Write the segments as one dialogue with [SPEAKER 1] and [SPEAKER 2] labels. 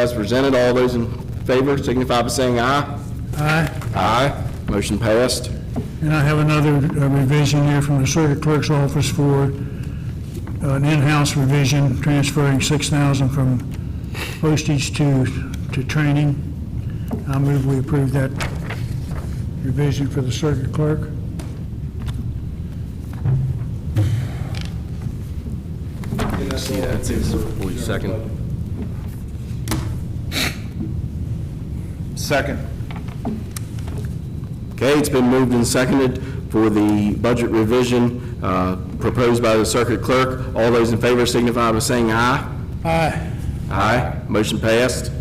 [SPEAKER 1] As presented, all those in favor signify by saying aye.
[SPEAKER 2] Aye.
[SPEAKER 1] Aye. Motion passed.
[SPEAKER 2] And I have another uh, revision here from the circuit clerk's office for uh, an in-house revision, transferring 6,000 from postage to, to training. I move we approve that revision for the circuit clerk.
[SPEAKER 1] Second.
[SPEAKER 3] Second.
[SPEAKER 1] Okay, it's been moved and seconded for the budget revision uh, proposed by the circuit clerk. All those in favor signify by saying aye.
[SPEAKER 2] Aye.
[SPEAKER 1] Aye. Motion passed.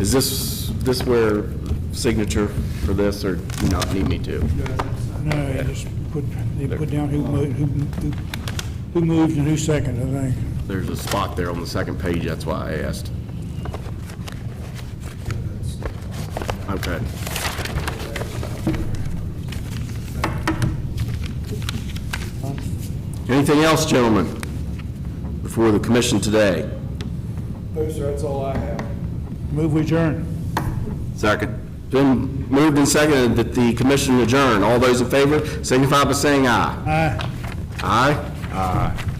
[SPEAKER 1] Is this, this where signature for this, or do you not need me to?
[SPEAKER 2] No, you just put, they put down who moved, who who moved and who seconded, I think.
[SPEAKER 1] There's a spot there on the second page, that's why I asked. Okay. Anything else, gentlemen, before the commission today?
[SPEAKER 3] No, sir, that's all I have.
[SPEAKER 2] Move we adjourn.
[SPEAKER 1] Second. Been moved and seconded that the commission adjourn. All those in favor signify by saying aye.
[SPEAKER 2] Aye.
[SPEAKER 1] Aye? Aye.